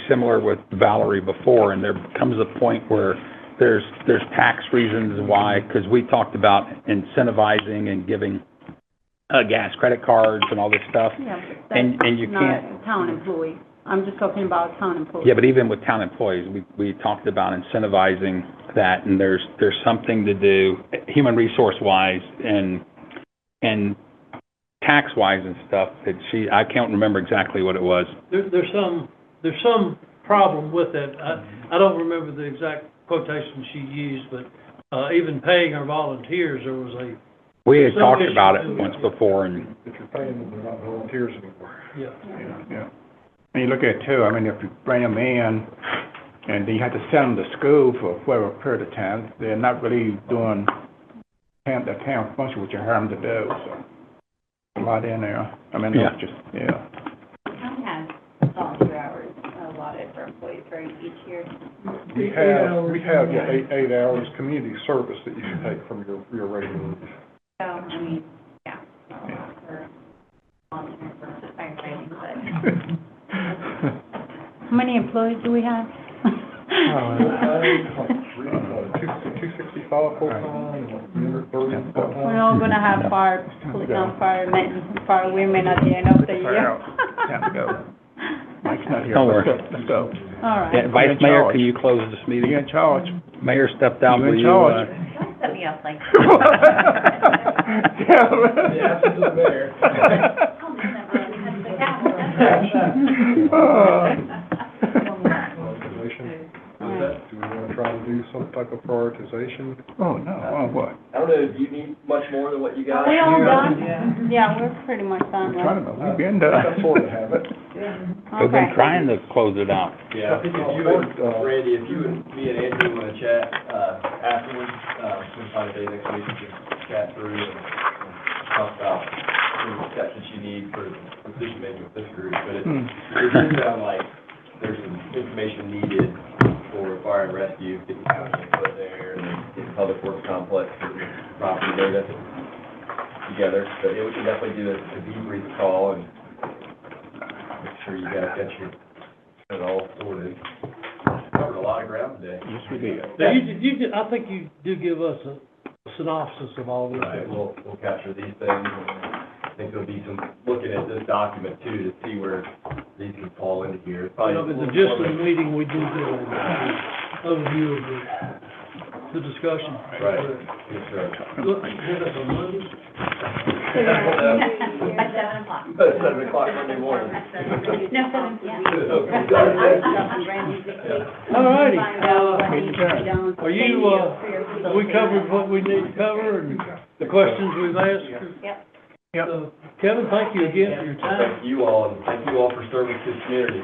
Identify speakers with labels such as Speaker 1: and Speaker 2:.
Speaker 1: similar with Valerie before, and there comes a point where there's, there's tax reasons why, because we talked about incentivizing and giving, uh, gas credit cards and all this stuff.
Speaker 2: Yeah, but
Speaker 1: And- and you
Speaker 2: that's not a town employee. I'm just talking about town employees.
Speaker 1: Yeah, but even with town employees, we, we talked about incentivizing that, and there's, there's something to do, eh, human resource-wise and, and tax-wise and stuff, that she, I can't remember exactly what it was.
Speaker 3: There, there's some, there's some problem with it.
Speaker 4: Mm-hmm.
Speaker 3: I, I don't remember the exact quotation she used, but, uh, even paying our volunteers, there was a,
Speaker 1: We had
Speaker 3: Some
Speaker 1: talked
Speaker 3: issue
Speaker 1: about it
Speaker 3: with it.
Speaker 1: once before, and,
Speaker 5: If you're paying them, they're not volunteers anymore.
Speaker 3: yeah.
Speaker 5: Yeah. And you look at it too, I mean, if you bring them in and then you have to send them to school for whatever period of time, they're not really doing town, the town function, which you hire them to do, so. A lot in there. I mean,
Speaker 1: Yeah.
Speaker 5: that's just, yeah.
Speaker 6: Town has volunteer hours allotted for employees, right, each year?
Speaker 7: We have, we have yeah, eight, eight hours community service that you can take from your, your regular.
Speaker 6: So, I mean, yeah, not a lot for volunteer versus firefighting, but.
Speaker 2: How many employees do we have?
Speaker 5: Oh,
Speaker 7: uh, Two sixty-five full-time, and thirty
Speaker 2: We're
Speaker 7: part-time.
Speaker 2: all gonna have fire, police, not firemen, fire women at the end of the
Speaker 5: Fire
Speaker 2: year.
Speaker 5: out. Time to go. Mike's not here.
Speaker 1: Don't worry.
Speaker 5: Let's go. Let's go.
Speaker 2: All
Speaker 1: Yeah,
Speaker 2: right.
Speaker 1: Vice Mayor, can you close this
Speaker 5: You're
Speaker 1: meeting?
Speaker 5: in charge.
Speaker 1: Mayor stepped out,
Speaker 5: You're in
Speaker 1: will you?
Speaker 5: charge.
Speaker 1: uh,
Speaker 6: Don't set me up like. I'll just never let it happen.
Speaker 7: Prioritization. Do we wanna try to do some type of prioritization?
Speaker 5: Oh, no, oh, what?
Speaker 4: I don't know, do you need much more than what you
Speaker 2: Are
Speaker 4: got?
Speaker 2: we all
Speaker 5: Yeah.
Speaker 2: done? Yeah, we're pretty much
Speaker 5: We're
Speaker 2: done,
Speaker 5: trying
Speaker 2: right?
Speaker 3: Uh,
Speaker 5: to, we've been done.
Speaker 7: That's sort of habit.
Speaker 1: We've been
Speaker 2: Okay.
Speaker 1: trying to close it out.
Speaker 4: Yeah, I think if you and,
Speaker 7: Uh,
Speaker 4: Randy, if you and me and Andrew wanna chat, uh, afterwards, uh, sometime day next week, we can chat through and and talk about the steps that you need for decision making with this group, but it,
Speaker 5: Hmm.
Speaker 4: it does sound like there's some information needed for fire and rescue, getting county input there, and then getting public works complex, and property data together, but yeah, we can definitely do a a debrief call and make sure you guys got your, it all sorted. Covered a lot of ground today.
Speaker 5: Yes, we did.
Speaker 3: Now, you, you, did- I think you do give us a synopsis of all this.
Speaker 4: Right, we'll, we'll capture these things, and I think there'll be some, looking at this document too, to see where these can fall into here.
Speaker 3: You know, but the gist of the meeting, we do do an overview of the, the discussion.
Speaker 4: Right, yes, sir.
Speaker 3: Look, did it on Monday?
Speaker 6: At seven o'clock.
Speaker 4: You better seven o'clock Monday morning.
Speaker 6: No, seven, yeah.
Speaker 3: All righty.
Speaker 2: Find out what
Speaker 5: Meeting
Speaker 2: needs to be
Speaker 5: adjourned.
Speaker 2: done.
Speaker 3: Are you, uh, we covered what we need to cover and the questions we've asked?
Speaker 6: Yep.
Speaker 5: Yep.
Speaker 3: So, Kevin, thank you again for your time.
Speaker 4: Thank you all, and thank you all for serving this community.